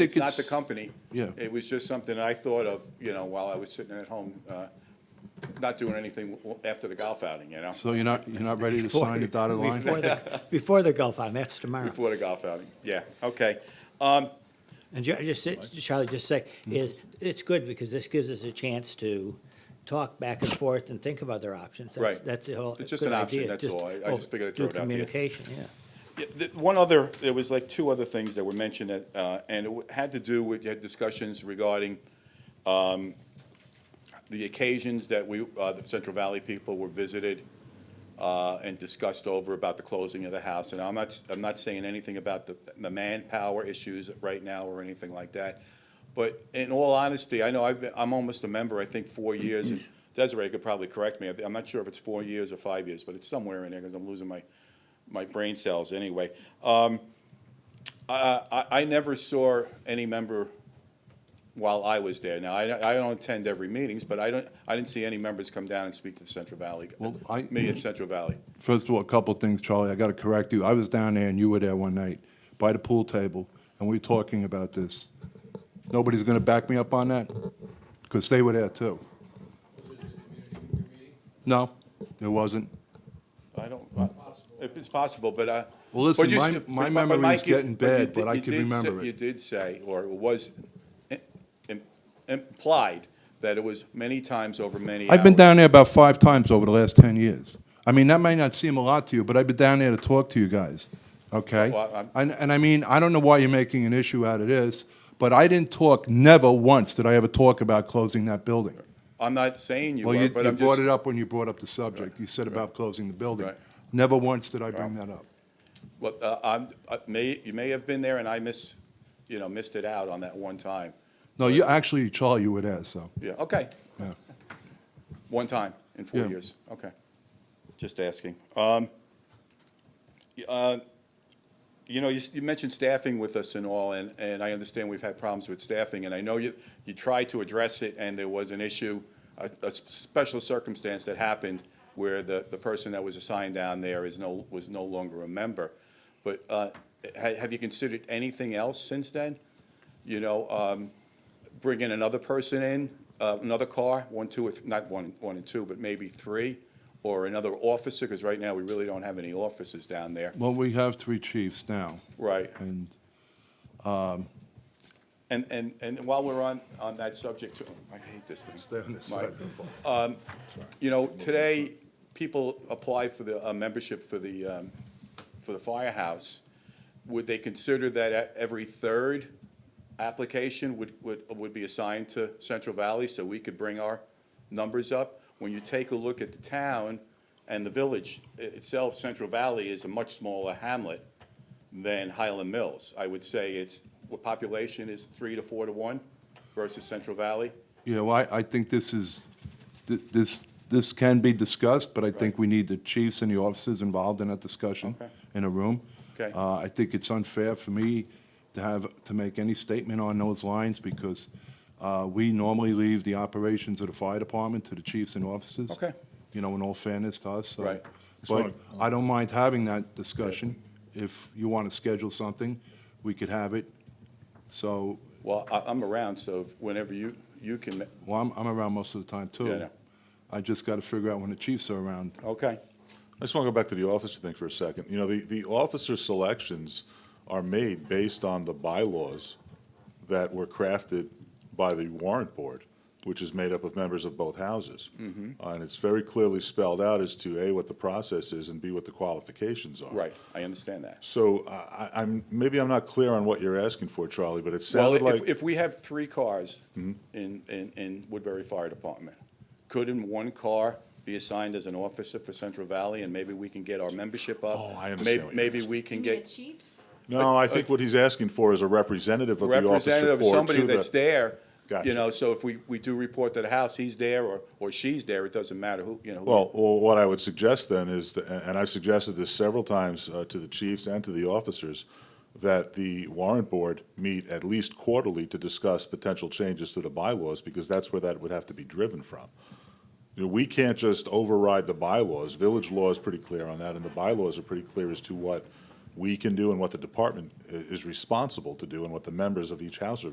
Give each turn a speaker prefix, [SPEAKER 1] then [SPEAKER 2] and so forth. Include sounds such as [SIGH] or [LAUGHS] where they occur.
[SPEAKER 1] think
[SPEAKER 2] It's not
[SPEAKER 1] it's-
[SPEAKER 2] the company.
[SPEAKER 1] Yeah.
[SPEAKER 2] It was just something I thought of, you know, while I was sitting at home, uh, not doing anything w- after the golf outing, you know,
[SPEAKER 1] So you're not, you're not ready to sign the dotted line?
[SPEAKER 2] [LAUGHS]
[SPEAKER 3] Before the- Before the Gulf Island, that's tomorrow.
[SPEAKER 2] before the golf outing. Yeah, okay.
[SPEAKER 3] And ju- just, say- Charlie, just say,
[SPEAKER 2] Mm.
[SPEAKER 3] is, it's good because this gives us a chance to talk back and forth and think of other options. That's-
[SPEAKER 2] Right.
[SPEAKER 3] That's the whole.
[SPEAKER 2] It's just an
[SPEAKER 3] good
[SPEAKER 2] option,
[SPEAKER 3] idea.
[SPEAKER 2] that's all. I- I
[SPEAKER 3] oh,
[SPEAKER 2] just figured I'd
[SPEAKER 3] do
[SPEAKER 2] throw it out to you.
[SPEAKER 3] Communication, yeah.
[SPEAKER 2] Yeah, th- One other, there was like two other things that were mentioned, that, uh, and it w- had to do with, you had discussions regarding um, the occasions that we, uh, the Central Valley people were visited uh, and discussed over about the closing of the house. And I'm not, s- I'm not saying anything about the the manpower issues right now or anything like that. But in all honesty, I know I've been, I'm almost a member, I think, four
[SPEAKER 1] [CLEARS THROAT]
[SPEAKER 2] years. and Desiree could probably correct me. I thi- I'm not sure if it's four years or five years, but it's somewhere in there because I'm losing my, my brain cells anyway. Um, I, I, I never saw any member while I was there. Now, I, I don't attend every meetings, but I don't, I didn't see any members come down and speak to the Central Valley.
[SPEAKER 1] Well, I-
[SPEAKER 2] Me at Central Valley.
[SPEAKER 1] First of all, a couple of things, Charlie, I got to correct you. I was down there and you were there one night by the pool table, and we were talking about this. Nobody's going to back me up on that? Because they were there too. No, there wasn't.
[SPEAKER 2] I don't, I- if it's possible, but I.
[SPEAKER 1] Well, listen,
[SPEAKER 2] but you
[SPEAKER 1] my-
[SPEAKER 2] s-
[SPEAKER 1] my
[SPEAKER 2] but- but
[SPEAKER 1] memory's
[SPEAKER 2] Mike, you-
[SPEAKER 1] getting
[SPEAKER 2] you
[SPEAKER 1] bad,
[SPEAKER 2] did-
[SPEAKER 1] but I
[SPEAKER 2] you
[SPEAKER 1] can
[SPEAKER 2] did say-
[SPEAKER 1] remember it.
[SPEAKER 2] You did say, or it was im- im- implied, that it was many times over many hours.
[SPEAKER 1] I've been down there about five times over the last 10 years. I mean, that might not seem a lot to you, but I've been down there to talk to you guys, okay?
[SPEAKER 2] Well, I'm-
[SPEAKER 1] And, and I mean, I don't know why you're making an issue out of this, but I didn't talk, never once did I ever talk about closing that building.
[SPEAKER 2] I'm not saying you
[SPEAKER 1] Well,
[SPEAKER 2] are,
[SPEAKER 1] you,
[SPEAKER 2] but
[SPEAKER 1] you
[SPEAKER 2] I'm
[SPEAKER 1] brought
[SPEAKER 2] just,
[SPEAKER 1] it up when you brought up the subject. You said about closing the building.
[SPEAKER 2] Right.
[SPEAKER 1] Never once did I bring that up.
[SPEAKER 2] well, uh, I'm, uh, may, you may have been there and I miss, you know, missed it out on that one time.
[SPEAKER 1] No, you, actually, Charlie, you were there, so,
[SPEAKER 2] Yeah, okay,
[SPEAKER 1] yeah.
[SPEAKER 2] one time in four
[SPEAKER 1] Yeah.
[SPEAKER 2] years, okay. Just asking. Um, y- uh, You know, you, s- you mentioned staffing with us and all, and, and I understand we've had problems with staffing, and I know you, you tried to address it, and there was an issue, a, a s- special circumstance that happened where the, the person that was assigned down there is no, was no longer a member. But, uh, ha, have you considered anything else since then? You know, um, bringing another person in, uh, another car, one, two, or th- not one, one and two, but maybe three, or another officer, because right now, we really don't have any officers down there.
[SPEAKER 1] Well, we have three chiefs now,
[SPEAKER 2] Right.
[SPEAKER 1] and
[SPEAKER 2] And, and, and while we're on, on that subject, too- I hate this thing.
[SPEAKER 1] Stay on this
[SPEAKER 2] My-
[SPEAKER 1] side.
[SPEAKER 2] um, You know, today, people apply for the, uh, membership for the, um, for the firehouse. Would they consider that e- every third application would, would, would be assigned to Central Valley so we could bring our numbers up? When you take a look at the town and the village i- itself, Central Valley is a much smaller hamlet than Highland Mills. I would say it's, what population is three to four to one versus Central Valley?
[SPEAKER 1] You know, I, I think this is, th- this, this can be discussed, but I think we need the chiefs and the officers involved in that discussion
[SPEAKER 2] Okay.
[SPEAKER 1] in a room.
[SPEAKER 2] Okay.
[SPEAKER 1] Uh, I think it's unfair for me to have, to make any statement on those lines because uh, we normally leave the operations of the fire department to the chiefs and officers.
[SPEAKER 2] Okay.
[SPEAKER 1] You know, in all fairness to us, so.
[SPEAKER 2] Right.
[SPEAKER 1] But I don't mind having that discussion. If you want to schedule something, we could have it. So,
[SPEAKER 2] Well, I, I'm around, so if- whenever you, you can, ma-
[SPEAKER 1] well, I'm, I'm around most of the time too.
[SPEAKER 2] Yeah, I know.
[SPEAKER 1] I just got to figure out when the Chiefs are around.
[SPEAKER 2] okay,
[SPEAKER 4] I just want to go back to the officer thing for a second. You know, the, the officer selections are made based on the bylaws that were crafted by the warrant board, which is made up of members of both houses.
[SPEAKER 2] Mm-hmm.
[SPEAKER 4] Uh, And it's very clearly spelled out as to, A, what the process is, and B, what the qualifications are.
[SPEAKER 2] right, I understand that.
[SPEAKER 4] So I, I- I'm, maybe I'm not clear on what you're asking for, Charlie, but it
[SPEAKER 2] Well,
[SPEAKER 4] sounded
[SPEAKER 2] if,
[SPEAKER 4] like,
[SPEAKER 2] if we have three cars in, in, in Woodbury Fire Department, couldn't one car be assigned as an officer for Central Valley, and maybe we can get our membership up?
[SPEAKER 4] Oh, I understand
[SPEAKER 2] Maybe-
[SPEAKER 4] what you're
[SPEAKER 2] Maybe
[SPEAKER 4] asking.
[SPEAKER 2] we can
[SPEAKER 5] You mean a
[SPEAKER 2] get
[SPEAKER 5] chief?
[SPEAKER 4] no, I think what he's asking for is a representative of the officer
[SPEAKER 2] representative,
[SPEAKER 4] corps.
[SPEAKER 2] somebody
[SPEAKER 4] to the-
[SPEAKER 2] that's there, you
[SPEAKER 4] Gotcha.
[SPEAKER 2] know, so if we, we do report to the house, he's there, or, or she's there, it doesn't matter who, you know. who-
[SPEAKER 4] Well, well, what I would suggest then is, th- and I've suggested this several times uh, to the chiefs and to the officers, that the warrant board meet at least quarterly to discuss potential changes to the bylaws, because that's where that would have to be driven from. You know, we can't just override the uh, bylaws. Village law is pretty clear on that, and the bylaws are pretty clear as to what we can do and what the department i- is responsible to do and what the members of each house are